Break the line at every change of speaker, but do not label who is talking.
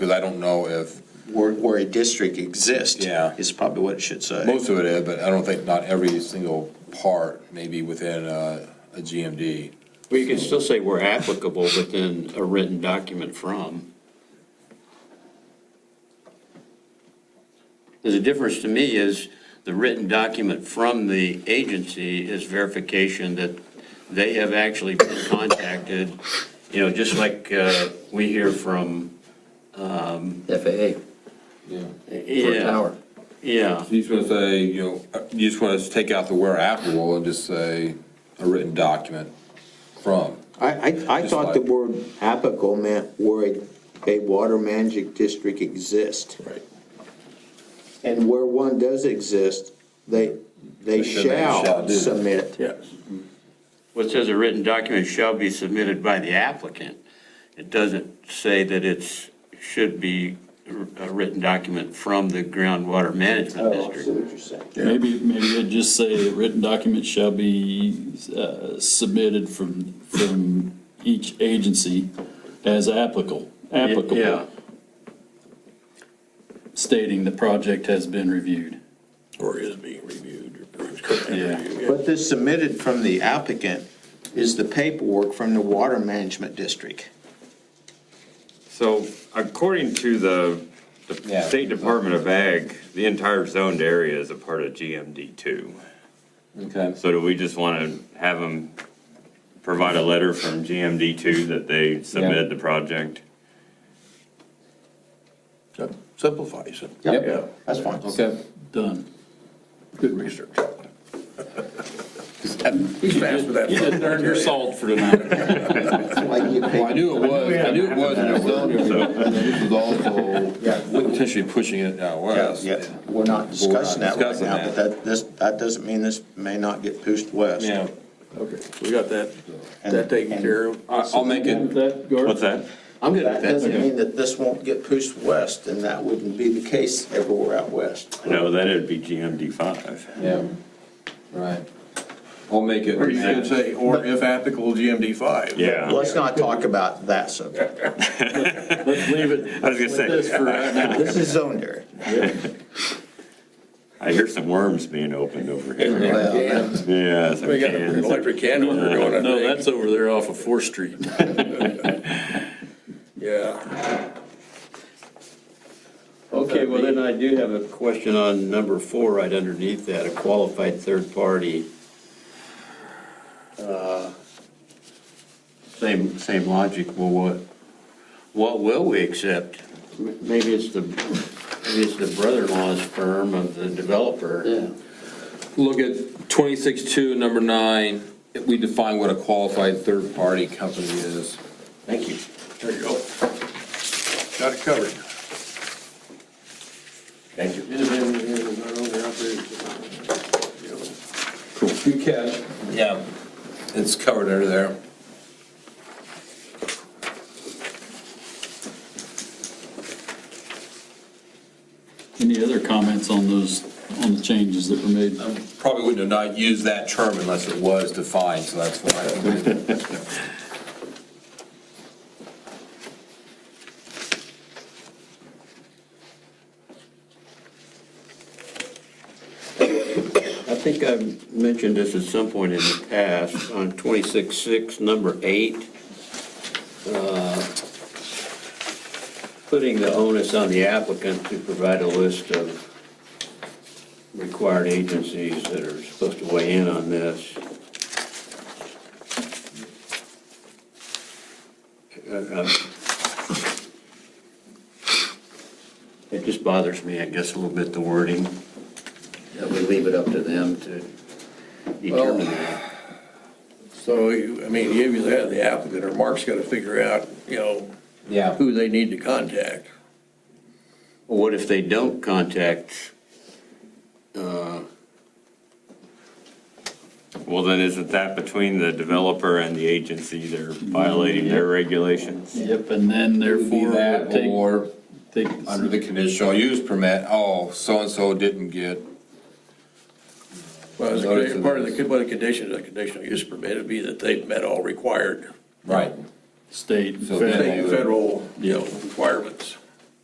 Because I don't know if,
where, where a district exists.
Yeah.
Is probably what it should say.
most of it is, but I don't think not every single part may be within a, a GMD.
Well, you can still say we're applicable within a written document from. The difference to me is the written document from the agency is verification that they have actually been contacted, you know, just like uh, we hear from,
FAA, for a
yeah,
tower.
yeah.
You just want to say, you know, you just want to take out the where applicable and just say a written document from.
I, I, I
Just
thought the
like-
word apical meant where a- a water management district exists.
Right.
And where one does exist, they, they
They should- they shall
shall
do.
submit.
Yes.
Well, it says a written document shall be submitted by the applicant. It doesn't say that it's, should be a written document from the groundwater management
Oh, I see
district.
what you're saying.
Maybe, maybe it'd just say the written document shall be uh, submitted from, from each agency as applicable,
Yeah,
applicable, stating the project has been reviewed.
Or is being reviewed, or is currently
Yeah.
reviewed.
But this submitted from the applicant is the paperwork from the water management district.
So according to the the
Yeah.
State Department of Ag, the entire zoned area is a part of GMD two.
Okay.
So do we just want to have them provide a letter from GMD two that they submitted the project?
Sim- Simplifies it.
Yep.
Yeah.
That's fine.
Okay.
Done.
Good research.
He's fast with that. You didn't earn your salt for tonight.
Like you
Well, I
pay-
knew it was, I knew it was, and it was on there, so this is
Yeah.
also potentially pushing it out west.
Yeah, we're not discussing that right
discussing
now,
that.
but that, this, that doesn't mean this may not get pushed west.
Yeah,
Okay, we got that,
And-
that taken
and
care of.
I- I'll make it,
What's that?
I'm good
That
with
doesn't
that.
mean that this won't get pushed west, and that wouldn't be the case everywhere out west.
No, then it'd be GMD five.
yeah, right. I'll make it.
Or you could say, or if applicable, GMD five.
Yeah.
Let's not talk about that subject.
Let's leave it
I was gonna
this
say,
for right now.
This is zoned area.
I hear some worms being opened over here.
Well,
Yeah. some
We got an
cans.
electric can over going, I
No,
think.
that's over there off of Fourth Street.
Yeah.
Okay, well, then I do have a question on number four, right underneath that, a qualified third party. Uh, Same, same logic, well, what, what will we accept? M- Maybe it's the, maybe it's the brother-in-law's firm of the developer.
Yeah.
Look at twenty-six two, number nine, if we define what a qualified third-party company is.
Thank you.
There you go. Got it covered.
Thank you.
Good catch. Yeah. It's covered under there.
Any other comments on those, on the changes that were made?
Probably wouldn't have not used that term unless it was defined, so that's why.
I think I've mentioned this at some point in the past, on 26-6, number eight, uh, putting the onus on the applicant to provide a list of required agencies that are supposed to weigh in on this. Uh, uh, uh, It just bothers me, I guess, a little bit, the wording that we leave it up to them to determine that.
So, you- I mean, you either have the applicant or Mark's got to figure out, you know,
Yeah.
who they need to contact.
Well, What if they don't contact, uh,
Well, then isn't that between the developer and the agency? They're violating their regulations?
Yep, and then
Be
therefore
that
would
or
take, take
under the conditional use permit, oh, so-and-so didn't get,
Well,
Notice
the-
of
part of the, one of the conditions, of the conditional use permit would be that they've met all required
right.
state,
So
federal.
then-
state, federal, you know, requirements.